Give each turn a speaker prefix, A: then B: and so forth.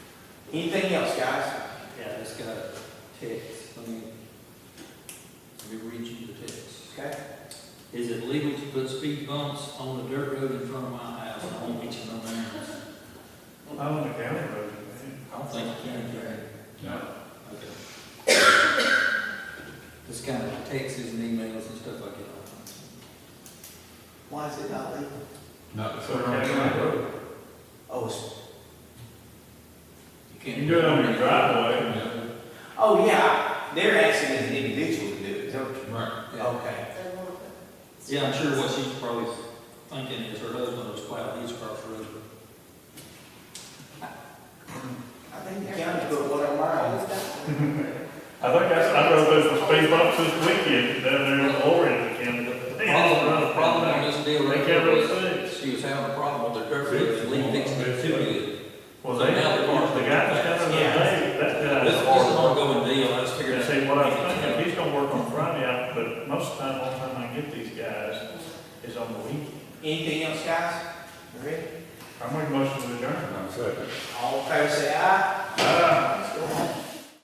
A: Anything else, guys?
B: Yeah,
C: That's got a text, let me, let me read you the text.
A: Okay.
C: Is it legal to put speed bumps on a dirt road in front of my house? I won't get you no names.
B: I own a county road.
C: I don't think you can, Gary.
D: No.
C: Okay. This kind of texts and emails and stuff I get all the time.
A: Why is it not legal?
D: Not
B: So county road.
A: Oh, it's,
C: You
B: You
C: can't.
B: can do it on your driveway.
D: Yeah,
A: oh, yeah, they're asking as an individual to do it, is that what
D: Right.
A: you-
C: Yeah.
A: Okay.
C: Yeah, I'm sure what she's probably thinking is her husband was plowing his across the road.
A: I think the county put one on mine.
B: I think that's, I drove those for speed bumps this weekend down there in Orange County.
C: The problem, the problem on this deal
B: They
C: right
B: can't really
C: here
B: see.
C: is she was having a problem with the dirt road, and Lee fixed it too good.
B: Well, they, the guy that's coming today, that guy.
C: This, this is an ongoing deal, I just figured.
B: And see, what I was thinking, he's gonna work on Friday, I- but most of the time, all the time I get these guys is on the weekend.
A: Anything else, guys? You Ready?
B: I'm making motion to adjourn.
D: I'm second.
A: All in favor, say aye.
B: Ah.
A: Let's go home.